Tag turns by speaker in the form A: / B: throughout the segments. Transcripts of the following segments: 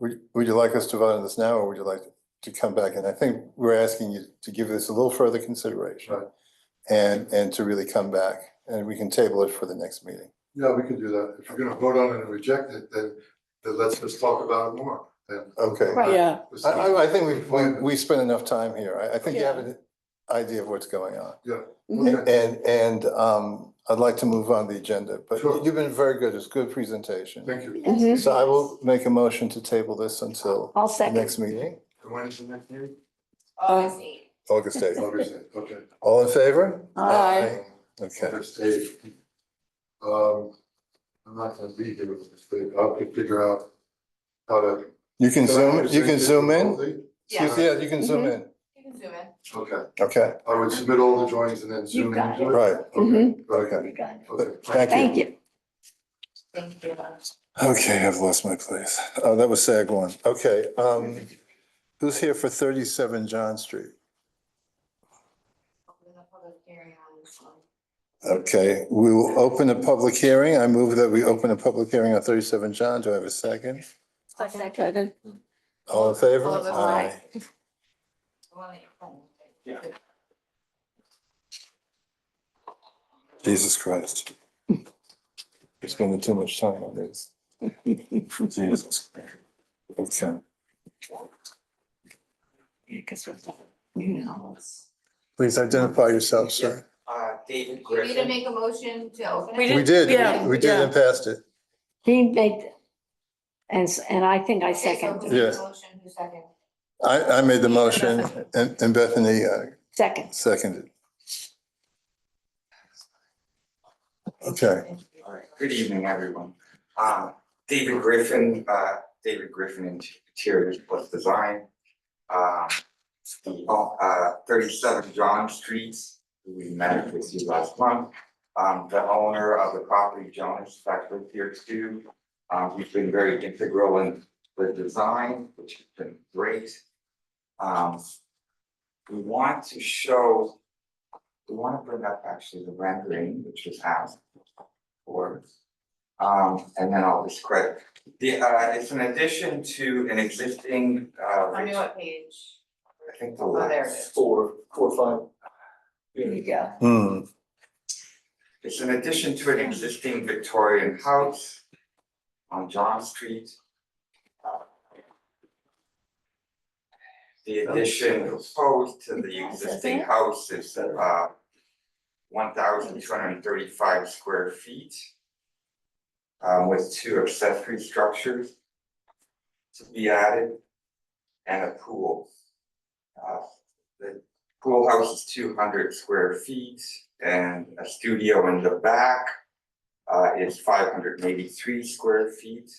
A: Would, would you like us to vote on this now, or would you like to come back? And I think we're asking you to give this a little further consideration.
B: Right.
A: And, and to really come back, and we can table it for the next meeting.
B: Yeah, we can do that. If you're gonna vote on it and reject it, then, then let's just talk about it more then.
A: Okay.
C: Right.
D: Yeah,
B: This is-
A: I, I, I think we've, we,
B: Appointment.
A: we spent enough time here. I, I think you have
D: Yeah.
A: an idea of what's going on.
B: Okay.
A: And, and, um, I'd like to move on the agenda, but
B: Sure.
A: you've been very good. It's good presentation.
B: Thank you.
C: Mhm.
A: So I will make a motion to table this until
C: I'll
A: the
C: second.
A: next meeting,
B: And when is the next meeting?
D: August
A: August eighth.
B: August eighth, okay.
A: All in favor?
C: Aye.
A: Okay.
B: August eighth. Um, I'm not gonna be here with this thing. I'll have to figure out how to.
A: You can zoom, you can
B: Is it
A: zoom in?
B: difficulty?
A: Excuse- Yeah, you can zoom in.
D: You can zoom in.
B: Okay,
A: Okay,
B: I would submit all the drawings and then zoom in.
C: got it. Mm-hmm.
A: right.
B: Okay, okay,
A: Okay.
B: okay.
A: Thank
C: Thank you.
D: Thank you.
A: Okay, I've lost my place. Oh, that was SAG one. Okay, um, who's here for thirty-seven John Street?
D: Open the public hearing on this one.
A: Okay, we will open a public hearing. I move that we open a public hearing on thirty-seven John. Do I have a second?
C: I'll second.
A: All in favor?
D: All those aye. The one that you're playing.
B: Yeah.
A: Jesus Christ. We're spending too much time on this. Jesus. Okay,
C: Because we're, you know.
A: please identify yourself, sir.
E: Uh, David
D: You need to
E: Griffin.
D: make a motion to open it.
C: We
A: We
C: did-
A: did,
C: yeah,
A: we did
C: yeah.
A: and passed it.
C: He made, and, s- and I think I
D: Okay, so who
C: second,
D: made the
A: Yes.
D: Motion, who seconded?
A: I, I made the motion and, and Bethany uh,
C: second.
A: seconded. Okay,
E: All right. Good evening, everyone. Uh, David Griffin, uh, David Griffin Interiors Plus Design. Um, the, uh, thirty-seven John Street, who we met with you last month. Um, the owner of the property, Jonas Factor here too. Um, he's been very integral in the design, which has been great. Um, we want to show, we want to bring up actually the rendering, which was out for. Um, and then I'll describe, the, uh, it's an addition to an existing, uh,
D: I mean, what page?
E: I think the
D: Oh, there it
E: last
D: is.
E: four, four, five.
C: There you go.
A: hmm,
E: It's an addition to an existing Victorian house on John Street. Uh, The addition proposed to the existing house is uh one thousand two hundred and thirty-five square feet um, with two accessory structures to be added and a pool. Uh, the pool house is two hundred square feet and a studio in the back uh, is five hundred and eighty-three square feet.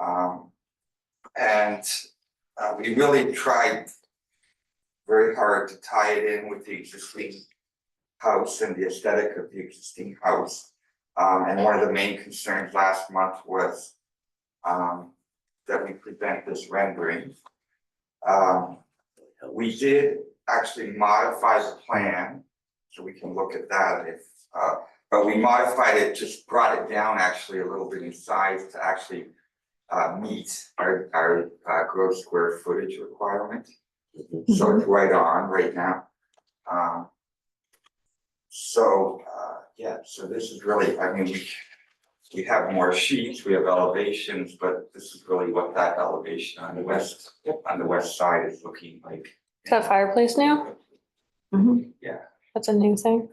E: Um, and uh, we really tried very hard to tie it in with the existing house and the aesthetic of the existing house. Um, and one of the main concerns last month was um, that we present this rendering. Um, we did actually modify the plan, so we can look at that if, uh, but we modified it, just brought it down actually a little bit in size to actually uh, meet our, our, uh, gross square footage requirement. So it's right on right now. Um, so, uh, yeah, so this is really, I mean, we, we have more sheets, we have elevations, but this is really what that elevation on the west, on the west side is looking like.
F: Is that fireplace now?
E: Yeah,
F: That's a new thing.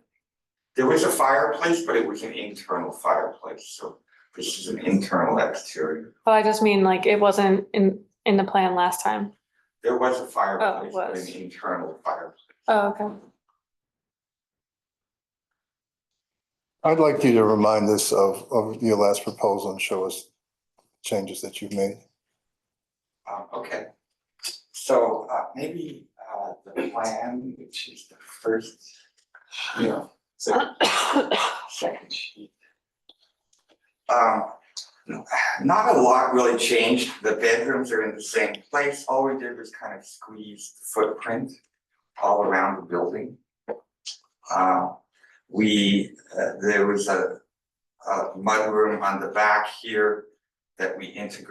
E: there was a fireplace, but it was an internal fireplace, so this is an internal exterior.
C: Oh,
F: Well, I just mean like it wasn't in, in the plan last time.
E: There was a fireplace, but an
F: was.
E: internal fireplace.
F: Oh, okay.
A: I'd like you to remind us of, of your last proposal and show us changes that you've made.
E: Um, okay, so, uh, maybe, uh, the plan, which is the first, you know, so, second sheet. Um, not a lot really changed, the bedrooms are in the same place, all we did was kind of squeeze the footprint all around the building. Uh, we, uh, there was a, a mudroom on the back here that we integrated